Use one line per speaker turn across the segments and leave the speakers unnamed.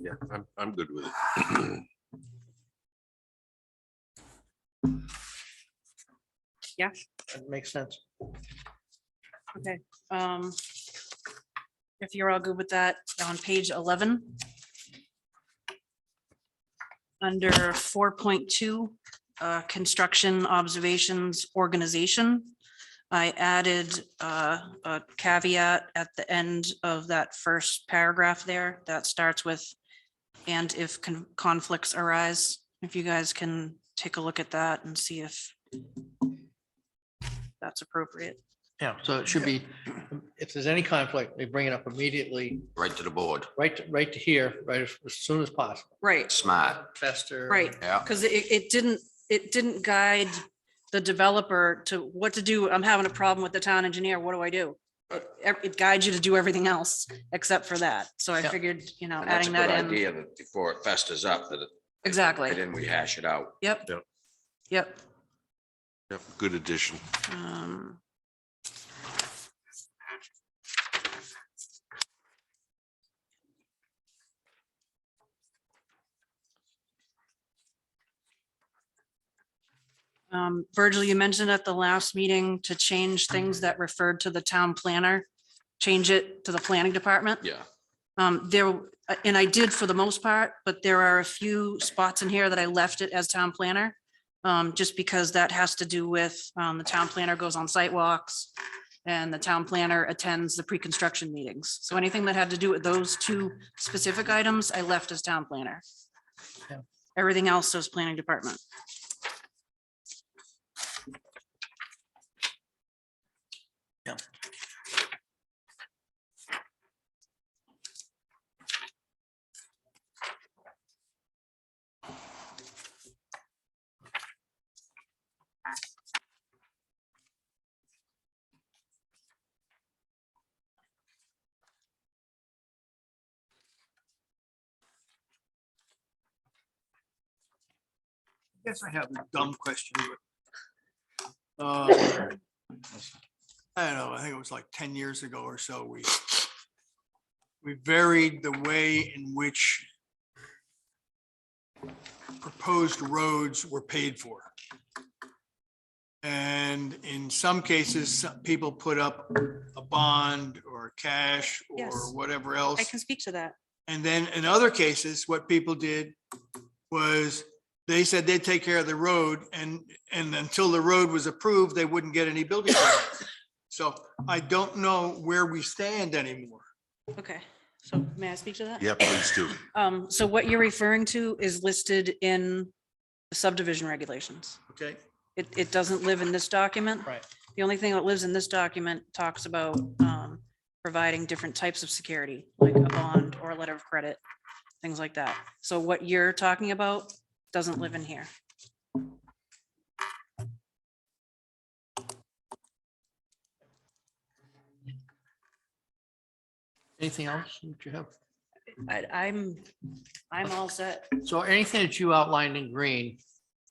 Yeah, I'm, I'm good with it.
That makes sense.
Okay, um, if you're all good with that, on page eleven. Under four point two, uh, construction observations, organization. I added, uh, a caveat at the end of that first paragraph there that starts with. And if con- conflicts arise, if you guys can take a look at that and see if. That's appropriate.
Yeah, so it should be, if there's any conflict, they bring it up immediately,
Right to the board.
right, to- right to here, right as as soon as possible.
Right.
Smart.
Faster.
Right,
Yeah.
because it, it didn't, it didn't guide the developer to what to do. I'm having a problem with the town engineer. What do I do? It- It guides you to do everything else except for that. So I
Yeah.
figured, you know,
And that's a
adding
good
that in.
idea that before it festers up, that it-
Exactly.
then we hash it out.
Yep.
Yep.
Yep.
Yep, good addition.
Um, um, Virgil, you mentioned at the last meeting to change things that referred to the town planner, change it to the planning department.
Yeah.
Um, there, and I did for the most part, but there are a few spots in here that I left it as town planner. Um, just because that has to do with, um, the town planner goes on site walks and the town planner attends the pre-construction meetings. So anything that had to do with those two specific items, I left as town planner.
Yeah.
Everything else is planning department.
Yes, I have a dumb question. but, um, I don't know, I think it was like ten years ago or so, we we varied the way in which proposed roads were paid for. And in some cases, some people put up a bond or cash or
Yes.
whatever else.
I can speak to that.
And then in other cases, what people did was they said they'd take care of the road and, and until the road was approved, they wouldn't get any building. permits. So I don't know where we stand anymore.
Okay, so may I speak to that?
Yeah, please do.
Um, so what you're referring to is listed in the subdivision regulations.
Okay,
It, it doesn't live in this document.
Right.
The only thing that lives in this document talks about, um, providing different types of security, like a bond or a letter of credit, things like that. So what you're talking about doesn't live in here.
Anything else that you have?
I, I'm, I'm all set.
So anything that you outlined in green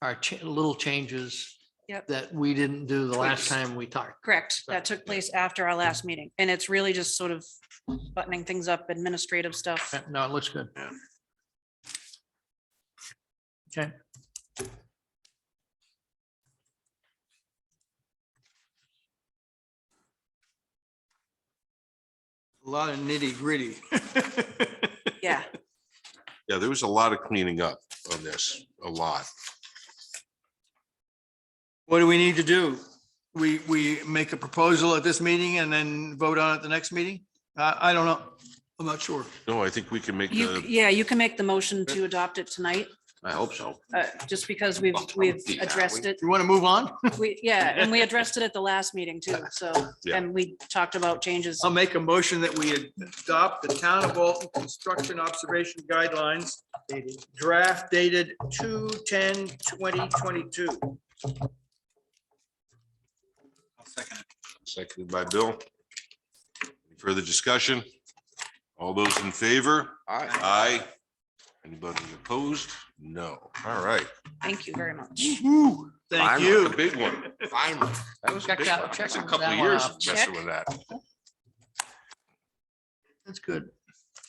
are cha- little changes
Yep.
that we didn't do the last
Tweaks.
time we talked.
Correct. That took place after our last meeting. And it's really just sort of buttoning things up, administrative stuff.
Uh, No, it looks good. Okay.
a lot of nitty gritty.
Yeah.
Yeah, there was a lot of cleaning up on this, a lot.
What do we need to do? We, we make a proposal at this meeting and then vote on it the next meeting? I, I don't know. I'm not sure.
No, I think we can make
You,
the,
yeah, you can make the motion to adopt it tonight,
I hope so.
uh, just because we've,
Well,
we've
yeah, we-
addressed it.
You want to move on?
We, yeah, and we addressed it at the last meeting too, so,
Yeah.
and we talked about changes.
I'll make a motion that we adopt the town of Alton construction observation guidelines draft dated 2022.
seconded by Bill. Any Further discussion? All those in favor? Aye. Anybody opposed? No. All right.
Thank you very much.
Thank
Finally.
The
you.
big one. Finally. That was a
Check
big
that-
one.
check
That's a
that
couple of
one
years
off.
messing with that.
That's good.